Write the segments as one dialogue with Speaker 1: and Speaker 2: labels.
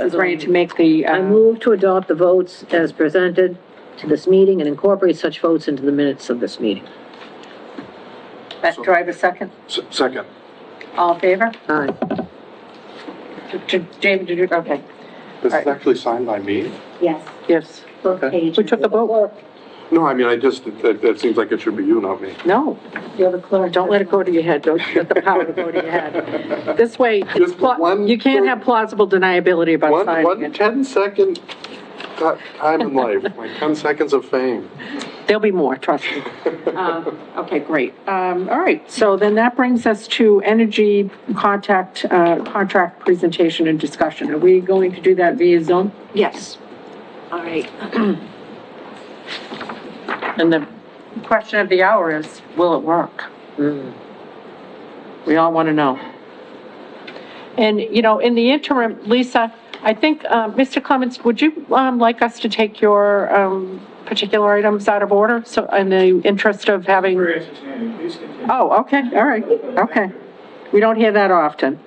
Speaker 1: is ready to make the,
Speaker 2: I
Speaker 1: uh,
Speaker 2: move to adopt the votes as presented to this meeting and incorporate such votes into the minutes of this meeting.
Speaker 1: do I have a second?
Speaker 3: S- Second.
Speaker 1: All in favor?
Speaker 2: Aye.
Speaker 1: J- J- David, did you, okay,
Speaker 3: This
Speaker 1: Alright.
Speaker 3: is actually signed by me?
Speaker 4: Yes,
Speaker 1: yes.
Speaker 4: both
Speaker 3: Okay.
Speaker 4: pages.
Speaker 1: Who took the vote?
Speaker 3: No, I mean, I just, that, that seems like it should be you, not me.
Speaker 1: No,
Speaker 4: You're the clerk.
Speaker 1: don't let it go to your head, don't let the power go to your head. This way, it's
Speaker 3: Just
Speaker 1: pla-
Speaker 3: one-
Speaker 1: you can't have plausible deniability about
Speaker 3: One, one
Speaker 1: signing it.
Speaker 3: 10-second time in life, like 10 seconds of fame.
Speaker 1: There'll be more, trust me. Uh, Okay, great. Um, All right, so then that brings us to energy contact, uh, contract presentation and discussion. Are we going to do that via Zoom?
Speaker 2: Yes.
Speaker 1: All right. And the question of the hour is, will it work? We all want to know. And, you know, in the interim, Lisa, I think, uh, Mr. Clements, would you um, like us to take your um, particular items out of order? So in the interest of having,
Speaker 5: Very entertaining, please continue.
Speaker 1: oh, okay, all right, okay. We don't hear that often.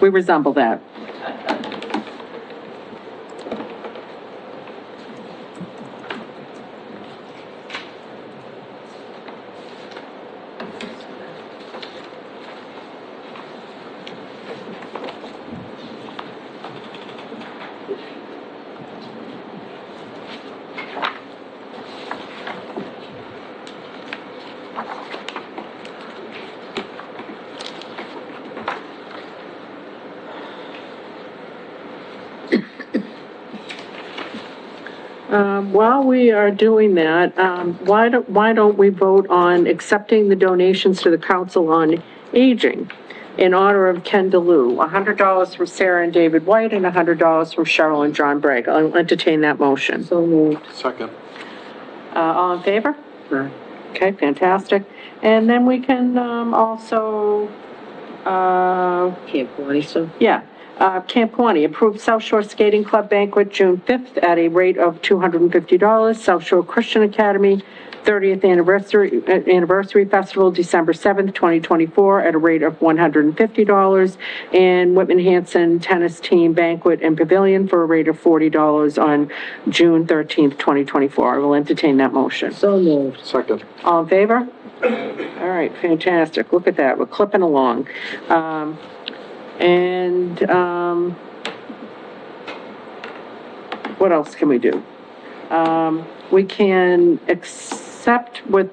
Speaker 1: We resemble that. Um, While we are doing that, um, why don't, why don't we vote on accepting the donations to the Council on Aging in honor of Ken DeLu? $100 from Sarah and David White and $100 from Cheryl and John Bragg. I'll entertain that motion.
Speaker 2: So moved.
Speaker 3: Second.
Speaker 1: Uh, All in favor?
Speaker 2: Aye.
Speaker 1: Okay, fantastic. And then we can um, also, uh,
Speaker 2: Camp Quantico.
Speaker 1: yeah, Uh, Camp Quaney, approved South Shore Skating Club banquet June 5th at a rate of $250. South Shore Christian Academy, 30th Anniversary uh, Anniversary Festival, December 7th, 2024, at a rate of $150. And Whitman Hanson Tennis Team Banquet and Pavilion for a rate of $40 on June 13th, 2024. I will entertain that motion.
Speaker 2: So moved.
Speaker 3: Second.
Speaker 1: All in favor? All right, fantastic. Look at that, we're clipping along. Um, and, um, what else can we do? Um, we can accept with,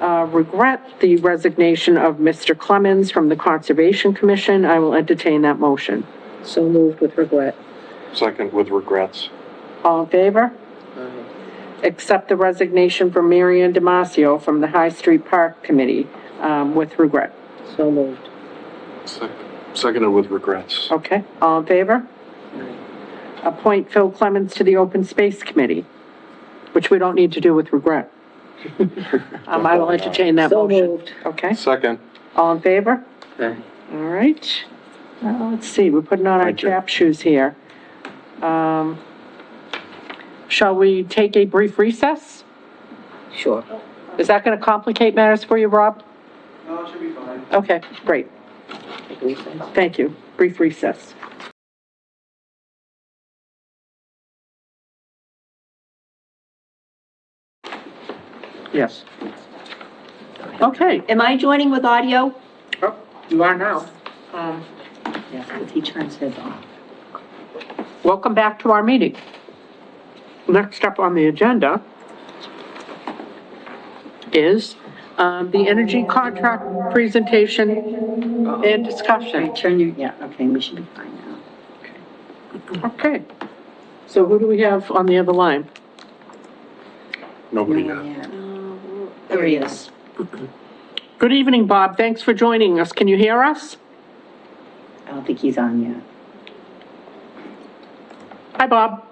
Speaker 1: uh, regret the resignation of Mr. Clemens from the Conservation Commission. I will entertain that motion.
Speaker 2: So moved with regret.
Speaker 3: Second with regrets.
Speaker 1: All in favor? Accept the resignation from Marion Damasio from the High Street Park Committee, um, with regret.
Speaker 2: So moved.
Speaker 3: Sec- Seconded with regrets.
Speaker 1: Okay, all in favor? Appoint Phil Clemens to the Open Space Committee, which we don't need to do with regret. Um, I will entertain that
Speaker 2: So
Speaker 1: motion.
Speaker 2: moved.
Speaker 1: Okay,
Speaker 3: Second.
Speaker 1: all in favor?
Speaker 2: Aye.
Speaker 1: All right. Now, let's see, we're putting on our
Speaker 3: Thank you.
Speaker 1: chap shoes here. Um, shall we take a brief recess?
Speaker 2: Sure.
Speaker 1: Is that gonna complicate matters for you, Rob?
Speaker 5: No, it should be fine.
Speaker 1: Okay, great, thank you. Brief recess. Yes. Okay.
Speaker 4: Am I joining with audio?
Speaker 1: Oh, You are now.
Speaker 4: Yes, because he turns his off.
Speaker 1: Welcome back to our meeting. Next up on the agenda is um, the energy contract presentation and discussion.
Speaker 4: Right, turn your, yeah, okay, we should be fine now.
Speaker 1: Okay. So who do we have on the other line?
Speaker 3: Nobody
Speaker 4: No,
Speaker 3: yet.
Speaker 4: yeah.
Speaker 1: Uh,
Speaker 4: There he is.
Speaker 1: Good evening, Bob. Thanks for joining us. Can you hear us?
Speaker 4: I don't think he's on yet.
Speaker 1: Hi, Bob.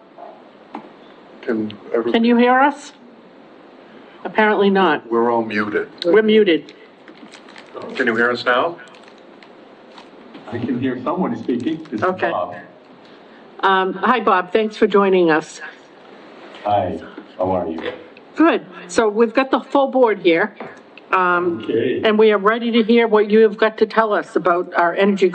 Speaker 3: Can everybody,
Speaker 1: Can you hear us? Apparently not.
Speaker 3: we're all muted.
Speaker 1: We're muted.
Speaker 3: Can you hear us now?
Speaker 6: I can hear someone speaking. This is
Speaker 1: Okay.
Speaker 6: Bob.
Speaker 1: Um, Hi, Bob. Thanks for joining us.
Speaker 6: Hi, how are you?
Speaker 1: Good. So we've got the full board here. Um,
Speaker 6: Okay.
Speaker 1: and we are ready to hear what you have got to tell us about our energy